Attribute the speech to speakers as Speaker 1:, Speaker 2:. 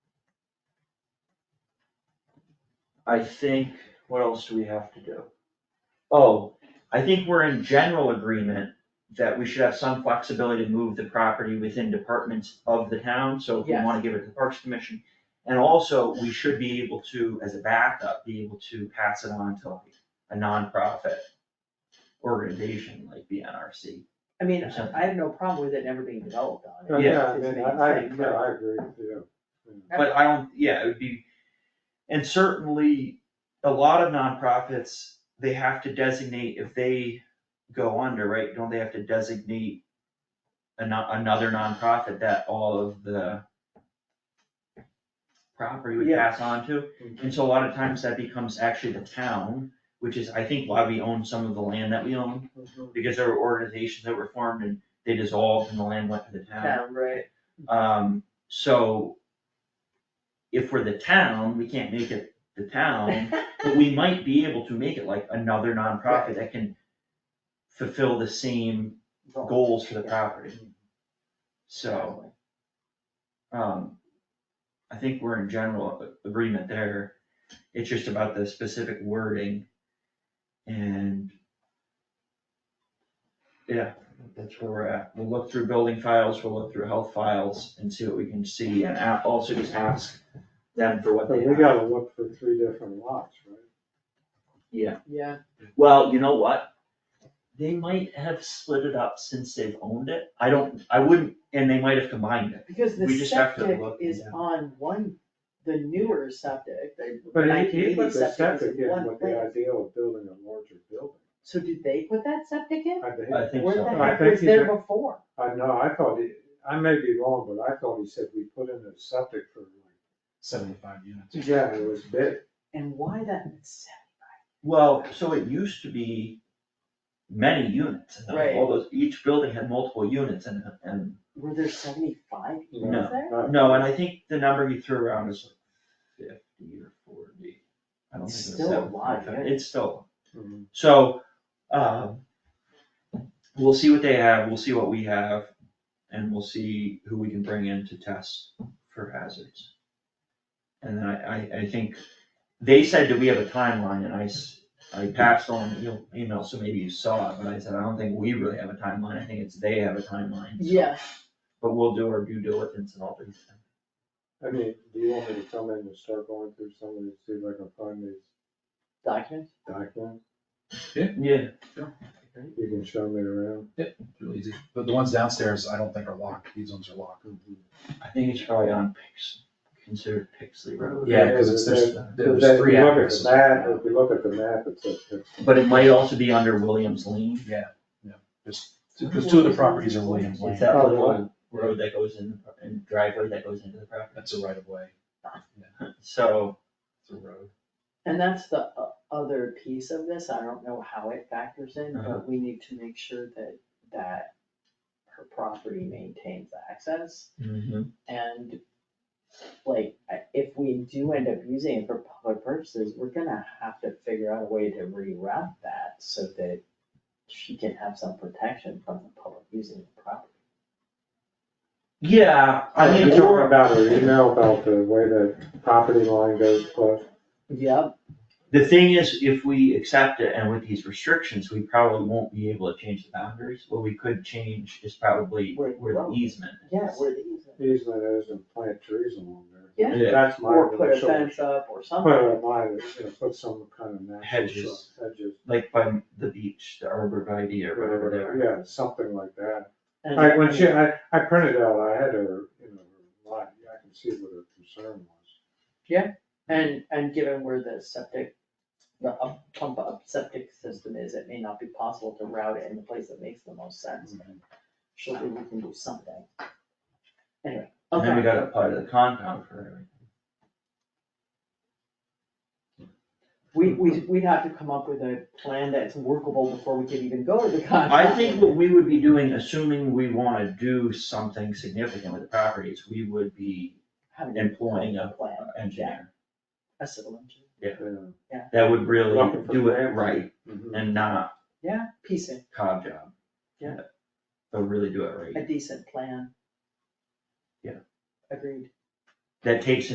Speaker 1: I think, what else do we have to do? Oh, I think we're in general agreement that we should have some flexibility to move the property within departments of the town, so if we
Speaker 2: Yes.
Speaker 1: wanna give it to the Parks Commission. And also, we should be able to, as a backup, be able to pass it on to like a nonprofit organization like the NRC.
Speaker 2: I mean,
Speaker 1: Or something.
Speaker 2: I have no problem with it never being developed on
Speaker 1: Yeah,
Speaker 2: it.
Speaker 1: Yeah.
Speaker 2: It's
Speaker 3: I
Speaker 2: his
Speaker 3: mean, I,
Speaker 2: main
Speaker 3: I,
Speaker 2: thing,
Speaker 3: Uh, yeah,
Speaker 2: but-
Speaker 3: I agree, yeah.
Speaker 1: But I don't, yeah, it would be, and certainly, a lot of nonprofits, they have to designate if they go under, right? Don't they have to designate ano- another nonprofit that all of the property would
Speaker 2: Yeah.
Speaker 1: pass on to? And so a lot of times that becomes actually the town, which is, I think, why we own some of the land that we own. Because there were organizations that were formed and they dissolved and the land went to the town.
Speaker 2: Yeah, right,
Speaker 1: Um, so if we're the town, we can't make it the town, but we might be able to make it like another nonprofit that can fulfill the same goals for the property. So, um, I think we're in general a- agreement there. It's just about the specific wording and yeah, that's where we're at. We'll look through building files, we'll look through health files and see what we can see and a- also just ask them for what
Speaker 3: But
Speaker 1: they
Speaker 3: we
Speaker 1: have.
Speaker 3: gotta look for three different lots, right?
Speaker 2: yeah,
Speaker 1: Well, you know what? They might have split it up since they've owned it. I don't, I wouldn't, and they might have combined it.
Speaker 2: because the
Speaker 1: We just have to
Speaker 2: septic
Speaker 1: look
Speaker 2: is
Speaker 1: and-
Speaker 2: on one, the newer septic, the
Speaker 3: But it-
Speaker 2: nineteen
Speaker 3: it,
Speaker 2: eighty
Speaker 3: but the
Speaker 2: septic
Speaker 3: septic
Speaker 2: is in
Speaker 3: is
Speaker 2: one
Speaker 3: what the
Speaker 2: place.
Speaker 3: ideal of building a larger building.
Speaker 2: So did they put that septic in?
Speaker 3: I think,
Speaker 1: I think
Speaker 2: Where the
Speaker 1: so.
Speaker 3: I
Speaker 2: heck
Speaker 3: think
Speaker 2: was
Speaker 3: he
Speaker 2: there
Speaker 3: did.
Speaker 2: before?
Speaker 3: I know, I thought he, I may be wrong, but I thought he said we put in a septic for like,
Speaker 4: seventy-five units.
Speaker 3: yeah, it was big.
Speaker 2: And why that septic?
Speaker 1: Well, so it used to be many units, in them.
Speaker 2: Right.
Speaker 1: all those, each building had multiple units in it, and,
Speaker 2: Were there seventy-five
Speaker 3: you
Speaker 2: units
Speaker 3: know,
Speaker 2: there?
Speaker 3: not-
Speaker 1: no, and I think the number you threw around is like fifty or forty. I don't think
Speaker 2: It's
Speaker 1: it was
Speaker 2: still a
Speaker 1: seven,
Speaker 2: lot,
Speaker 1: five,
Speaker 2: yeah.
Speaker 1: It's still,
Speaker 3: Mhm.
Speaker 1: so, um, we'll see what they have, we'll see what we have, and we'll see who we can bring in to test for hazards. And then I, I, I think, they said, do we have a timeline, and I s- I passed on the e- email, so maybe you saw it, but I said, I don't think we really have a timeline, I think it's they have a timeline. so-
Speaker 2: Yeah,
Speaker 1: But we'll do our due diligence and all these things.
Speaker 3: I mean, do you want me to come in and start going through some of these, see if I can find these
Speaker 2: documents,
Speaker 3: documents?
Speaker 1: Yeah.
Speaker 3: You can show me around.
Speaker 4: Real easy. But the ones downstairs, I don't think are locked. These ones are locked.
Speaker 1: I think it's probably on Pix, considered Pixley Road.
Speaker 4: Yeah, because it's, there's,
Speaker 3: Because
Speaker 4: there's
Speaker 3: if
Speaker 4: three
Speaker 3: you look at
Speaker 4: addresses.
Speaker 3: the map, if you look at the map, it says it's
Speaker 1: But it might also be under Williams Lane,
Speaker 4: There's- Because two of the properties are Williams
Speaker 1: it's
Speaker 4: Lane.
Speaker 1: that
Speaker 3: Oh,
Speaker 1: little road that goes in, and driveway that goes into the property,
Speaker 4: That's a right of way.
Speaker 1: so.
Speaker 4: It's a road.
Speaker 2: and that's the o- other piece of this, I don't know how it factors in,
Speaker 1: Uh-huh.
Speaker 2: but we need to make sure that, that her property maintains access.
Speaker 1: Mm-hmm.
Speaker 2: And like, I- if we do end up using it for public purposes, we're gonna have to figure out a way to reroute that so that she can have some protection from the public using the property.
Speaker 1: Yeah, I
Speaker 3: You're
Speaker 1: mean,
Speaker 3: talking
Speaker 1: or
Speaker 3: about her email about the way the property line goes plus.
Speaker 2: Yep,
Speaker 1: the thing is, if we accept it and with these restrictions, we probably won't be able to change the boundaries, what we could change is probably
Speaker 2: Where-
Speaker 1: where the easement is.
Speaker 2: yeah, where the easement.
Speaker 3: easement is and plant trees along there.
Speaker 2: Yeah.
Speaker 1: Yeah.
Speaker 3: That's my
Speaker 2: Or put a
Speaker 3: initial.
Speaker 2: fence up or
Speaker 3: Put
Speaker 2: something,
Speaker 3: a line, you know, put some kind of natural.
Speaker 1: Hedges.
Speaker 3: shrub, Hedges,
Speaker 1: Like by the beach, the arborvitae or whatever they are.
Speaker 3: yeah, something like that.
Speaker 2: and
Speaker 3: Like when she, I, I printed out, I had her, you know, her line, I can see what her concern was.
Speaker 2: And, and given where the septic, the up, pump up septic system is, it may not be possible to route it in the place that makes the most sense. She'll do, we can do something. Anyway,
Speaker 1: And then we
Speaker 2: okay,
Speaker 1: gotta apply to the compound for everything.
Speaker 2: we, we, we'd have to come up with a plan that's workable before we could even go to the contract.
Speaker 1: I think what we would be doing, assuming we wanna do something significant with the properties, we would be
Speaker 2: Having a
Speaker 1: employing a
Speaker 2: Plan,
Speaker 1: a engineer.
Speaker 2: a civil engineer,
Speaker 3: Yeah.
Speaker 1: That would really
Speaker 3: Looking for
Speaker 1: do it
Speaker 3: grants.
Speaker 1: right
Speaker 3: Mhm.
Speaker 1: and not
Speaker 2: yeah, piecing,
Speaker 1: cob job.
Speaker 2: Yeah.
Speaker 1: But really do it
Speaker 2: a
Speaker 1: right.
Speaker 2: decent plan.
Speaker 1: Yeah.
Speaker 2: Agreed.
Speaker 1: That takes